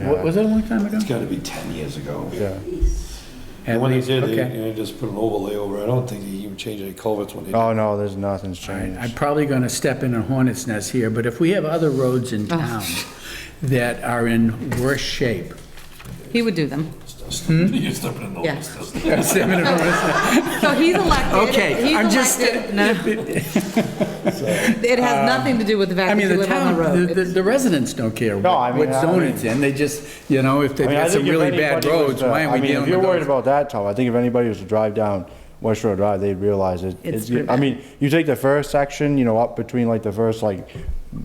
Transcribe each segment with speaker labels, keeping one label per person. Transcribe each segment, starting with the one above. Speaker 1: Wa- Was that a long time ago?
Speaker 2: It's gotta be ten years ago.
Speaker 1: Yeah.
Speaker 2: And when they did, they,
Speaker 1: Okay.
Speaker 2: you know, just put an overlay over, I don't think they even changed any culverts when they did.
Speaker 3: Oh, no, there's nothing's
Speaker 1: All right, I'm
Speaker 3: changed.
Speaker 1: probably going to step in a hornet's nest here, but if we have other roads in town that are in worse shape,
Speaker 4: He would do them.
Speaker 1: Hmm?
Speaker 2: You're stepping in the
Speaker 4: Yeah.
Speaker 2: list.
Speaker 1: Step in a hornet's nest.
Speaker 4: So he's elected.
Speaker 1: Okay,
Speaker 4: He's
Speaker 1: I'm just-
Speaker 4: elected. No. It has nothing to do with the
Speaker 1: I
Speaker 4: fact that
Speaker 1: mean,
Speaker 4: you
Speaker 1: the
Speaker 4: live on
Speaker 1: town,
Speaker 4: the
Speaker 1: the-
Speaker 4: road.
Speaker 1: the
Speaker 4: It's-
Speaker 1: the residents don't care
Speaker 3: No, I
Speaker 1: what what
Speaker 3: mean, I
Speaker 1: zone
Speaker 3: mean-
Speaker 1: it's in, they just, you know, if they've
Speaker 3: I mean, I
Speaker 1: got some
Speaker 3: think if
Speaker 1: really bad
Speaker 3: anybody was
Speaker 1: roads,
Speaker 3: to-
Speaker 1: why
Speaker 3: I
Speaker 1: aren't we
Speaker 3: mean,
Speaker 1: dealing
Speaker 3: If
Speaker 1: with
Speaker 3: you're worried
Speaker 1: those?
Speaker 3: about that, Tom, I think if anybody was to drive down West Shore Drive, they'd realize it.
Speaker 4: It's
Speaker 3: it's- I
Speaker 4: pretty
Speaker 3: mean, you take the first section, you know, up between like the first, like,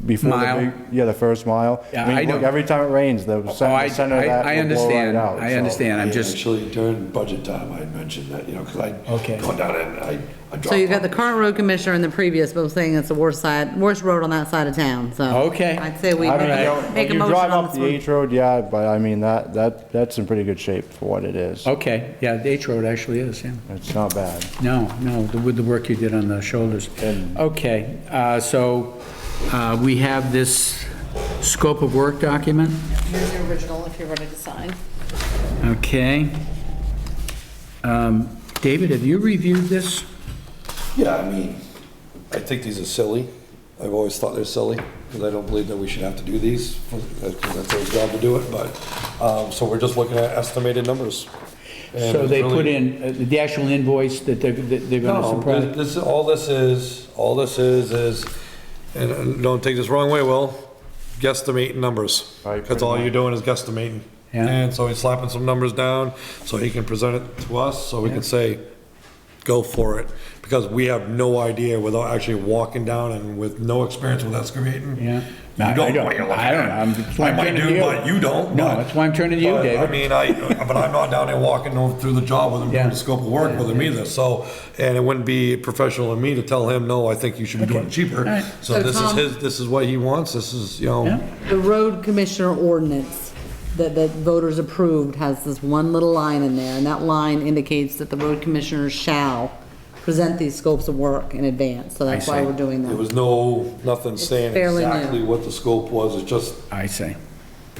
Speaker 3: before the
Speaker 1: Mile.
Speaker 3: big, yeah, the first mile.
Speaker 1: Yeah, I
Speaker 3: mean, look,
Speaker 1: know.
Speaker 3: Every time it rains, the
Speaker 1: Oh,
Speaker 3: center
Speaker 1: I,
Speaker 3: the center of
Speaker 1: I
Speaker 3: that
Speaker 1: I
Speaker 3: will blow right
Speaker 1: understand,
Speaker 3: out,
Speaker 1: I
Speaker 3: so.
Speaker 1: understand, I'm
Speaker 2: Yeah,
Speaker 1: just,
Speaker 2: Actually, during budget time, I mentioned that, you know, because I,
Speaker 1: Okay.
Speaker 2: going down and I, I dropped.
Speaker 4: So you've got
Speaker 2: off
Speaker 4: the current road commissioner and the previous both saying it's the worst side, worst road on that side of town, so.
Speaker 1: Okay.
Speaker 4: I'd say we
Speaker 3: I mean, you
Speaker 4: make
Speaker 3: know,
Speaker 4: a-
Speaker 3: when
Speaker 4: make a
Speaker 3: you
Speaker 4: motion
Speaker 3: drive
Speaker 4: on
Speaker 3: up
Speaker 4: this
Speaker 3: the
Speaker 4: one.
Speaker 3: H Road, yeah, but I mean, that, that, that's in pretty good shape for what it
Speaker 1: Oh.
Speaker 3: is.
Speaker 1: okay, yeah, the H Road actually is, yeah.
Speaker 3: It's not bad.
Speaker 1: No, no, the- with the work you did on the shoulders. Okay, uh, so uh, we have this scope of work document,
Speaker 5: Here's the original if you're ready to sign.
Speaker 1: okay? Um, David, have you reviewed this?
Speaker 2: Yeah, I mean, I think these are silly. I've always thought they're silly, because I don't believe that we should have to do these, because that's our job to do it, but, um, so we're just looking at estimated numbers. And
Speaker 1: So they
Speaker 2: it's really-
Speaker 1: put in uh, the actual invoice that they're, that they're gonna
Speaker 2: No,
Speaker 1: surprise?
Speaker 2: this, all this is, all this is, is, and uh, don't take this wrong way, Will, guesstimating numbers.
Speaker 3: Right,
Speaker 2: That's all you're doing is guesstimating.
Speaker 1: Yeah.
Speaker 2: And so he's slapping some numbers down, so he can present it to us, so we can say, go for it. Because we have no idea without actually walking down and with no experience with excavating.
Speaker 1: Yeah. I- I
Speaker 2: You don't know
Speaker 1: don't-
Speaker 2: what you're looking
Speaker 1: I don't know. I'm-
Speaker 2: at.
Speaker 1: that's why
Speaker 2: I
Speaker 1: I'm
Speaker 2: might
Speaker 1: turning to
Speaker 2: do,
Speaker 1: you.
Speaker 2: but you don't.
Speaker 1: No,
Speaker 2: but-
Speaker 1: that's why I'm turning to you,
Speaker 2: but, I
Speaker 1: David.
Speaker 2: mean, I, but I'm not down there walking over through the job with him, doing
Speaker 1: Yeah.
Speaker 2: the scope of work with him either, so, and it wouldn't be professional of me to tell him, no, I think you should be doing it cheaper.
Speaker 1: right.
Speaker 2: So
Speaker 4: So,
Speaker 2: this is
Speaker 4: Tom-
Speaker 2: his, this is what he wants, this is, you
Speaker 1: Yeah.
Speaker 2: know,
Speaker 4: The road commissioner ordinance that, that voters approved has this one little line in there, and that line indicates that the road commissioner shall present these scopes of work in advance, so that's why
Speaker 1: see.
Speaker 4: we're doing
Speaker 2: there
Speaker 4: that.
Speaker 2: was no, nothing saying
Speaker 4: fairly new.
Speaker 2: exactly what the scope was, it's just,
Speaker 1: I see.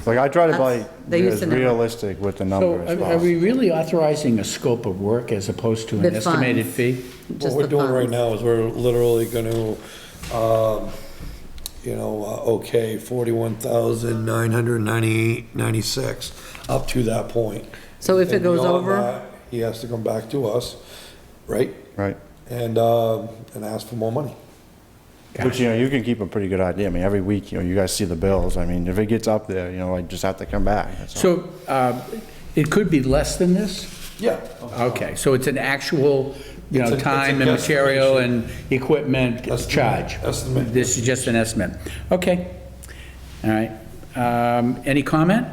Speaker 3: Like, I try to
Speaker 4: That's-
Speaker 3: like,
Speaker 4: they
Speaker 3: be
Speaker 4: used
Speaker 3: as
Speaker 4: to know.
Speaker 3: realistic with the
Speaker 1: So
Speaker 3: number as
Speaker 1: are are we
Speaker 3: possible.
Speaker 1: really authorizing a scope of work as opposed to an
Speaker 4: The funds.
Speaker 1: estimated fee?
Speaker 2: what
Speaker 4: Just
Speaker 2: we're
Speaker 4: the
Speaker 2: doing right
Speaker 4: funds.
Speaker 2: now is we're literally gonna, um, you know, uh, okay, forty-one thousand nine hundred ninety-eight, ninety-six, up to that point.
Speaker 4: So if it
Speaker 2: And
Speaker 4: goes
Speaker 2: beyond
Speaker 4: over-
Speaker 2: that, He has to come back to us, right?
Speaker 3: Right.
Speaker 2: And, um, and ask for more money.
Speaker 3: But, you know, you can keep a pretty good idea. I mean, every week, you know, you guys see the bills. I mean, if it gets up there, you know, I just have to come back. That's all.
Speaker 1: So uh, it could be less than this?
Speaker 2: Yeah.
Speaker 1: Okay, so it's an actual, you
Speaker 2: It's a-
Speaker 1: know,
Speaker 2: it's a
Speaker 1: time and material and equipment
Speaker 2: Estimate,
Speaker 1: charge?
Speaker 2: estimate.
Speaker 1: This is just an estimate. Okay, all right. Um, Any comment?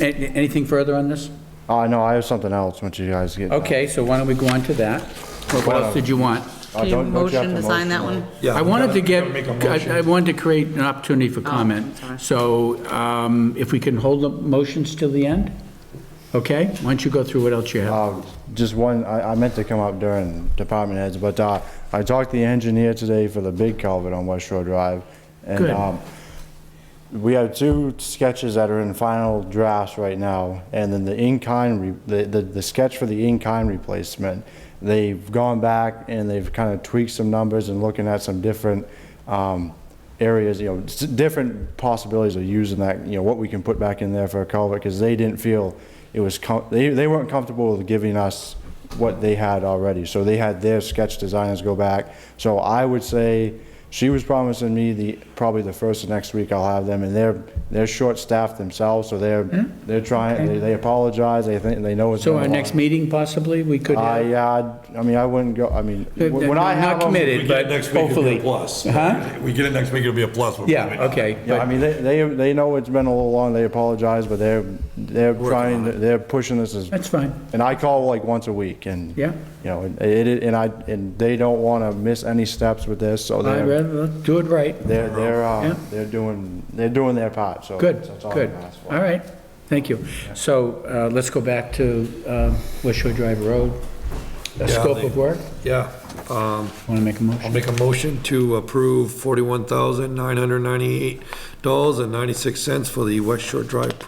Speaker 1: A- Anything further on this?
Speaker 3: Uh, no, I have something else once you guys get.
Speaker 1: Okay, so why don't we go on to that? What else did you want?
Speaker 3: Uh,
Speaker 4: Can you
Speaker 3: don't- don't have
Speaker 4: motion to sign that one?
Speaker 2: Yeah,
Speaker 1: I
Speaker 2: we
Speaker 1: wanted
Speaker 2: gotta-
Speaker 1: to
Speaker 2: we
Speaker 1: get,
Speaker 2: gotta make a motion.
Speaker 1: I I wanted to create an opportunity for comment.
Speaker 4: sorry.
Speaker 1: So um, if we can hold the motions till the end? Okay, why don't you go through what else you have?
Speaker 3: Um, Just one, I, I meant to come up during department heads, but uh, I talked to the engineer today for the big culvert on West Shore Drive. and
Speaker 1: Good.
Speaker 3: um, We have two sketches that are in final drafts right now, and then the in-kind, re- the, the the sketch for the in-kind replacement, they've gone back and they've kind of tweaked some numbers and looking at some different um, areas, you know, s- different possibilities of using that, you know, what we can put back in there for a culvert, because they didn't feel it was, com- they, they weren't comfortable with giving us what they had already. So they had their sketch designers go back. So I would say, she was promising me the, probably the first of next week I'll have them, and they're, they're short-staffed themselves, so they're, they're trying, they- they apologize, they think, they know it's
Speaker 1: Mm-hmm. So
Speaker 3: going
Speaker 1: our
Speaker 3: on.
Speaker 1: next meeting possibly, we could have?
Speaker 3: I, uh, I mean, I wouldn't go, I mean,
Speaker 1: Uh,
Speaker 3: when I
Speaker 1: not
Speaker 3: have them.
Speaker 1: committed.
Speaker 2: We get it next week, it'll be
Speaker 1: Hopefully.
Speaker 2: a plus.
Speaker 1: Huh?
Speaker 2: We get it next week, it'll be a plus. We're probably
Speaker 1: Yeah,
Speaker 2: not.
Speaker 1: okay.
Speaker 3: Yeah, I
Speaker 1: but-
Speaker 3: mean, they, they, they know it's been a little long, they apologize, but they're, they're trying, they're pushing this as.
Speaker 1: That's fine.
Speaker 3: And I call like once a week, and.
Speaker 1: Yeah.
Speaker 3: You know, and it, it- and I, and they don't wanna miss any steps with this, so
Speaker 1: I'd
Speaker 3: they're,
Speaker 1: rather do it right.
Speaker 3: they're, they're,
Speaker 1: Yeah.
Speaker 3: uh, they're doing, they're doing their part, so.
Speaker 1: Good,
Speaker 3: that's all I
Speaker 1: good.
Speaker 3: can ask for.
Speaker 1: All right, thank you. So uh, let's go back to uh, West Shore Drive Road. The
Speaker 2: Yeah,
Speaker 1: scope
Speaker 2: they-
Speaker 1: of work?
Speaker 2: Yeah, um,
Speaker 1: Want to make a
Speaker 2: I'll
Speaker 1: motion?
Speaker 2: make a motion to approve forty-one thousand nine hundred ninety-eight dollars and ninety-six cents for the West Shore Drive